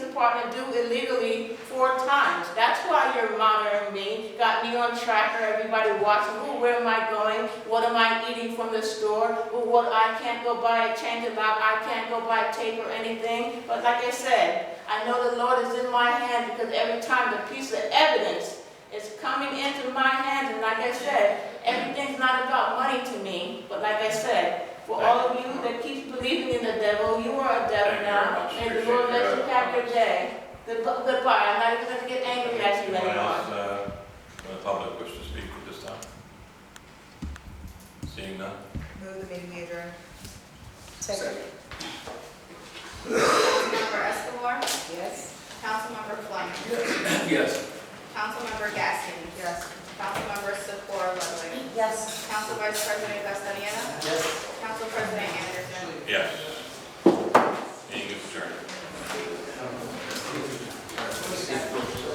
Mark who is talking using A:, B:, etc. A: department do illegally four times. That's why you're monitoring me, got me on tracker, everybody watching, oh, where am I going? What am I eating from the store? Oh, what, I can't go buy a change of lock, I can't go buy tape or anything. But like I said, I know the Lord is in my hand because every time the piece of evidence is coming into my hand, and like I said, everything's not about money to me, but like I said, for all of you that keeps believing in the devil, you are a devil
B: Thank you
A: now,
B: very much.
A: and the Lord
B: Appreciate
A: lets you
B: your
A: have your
B: comments.
A: day. Good- Goodbye, I'm not even gonna get angry at you
B: Anyone
A: anymore.
B: else, uh, from the public wish to speak at this time? Seeing none?
C: Move the meeting we adjourn.
D: Second.
E: Councilmember Escobar,
C: Yes?
E: Councilmember Fleming,
D: Yes.
E: Councilmember Gaskin,
C: Yes.
E: Councilmember Secor Ludwig,
C: Yes.
E: Council Vice President Castellino,
D: Yes.
E: Council President Anderson,
B: Yes.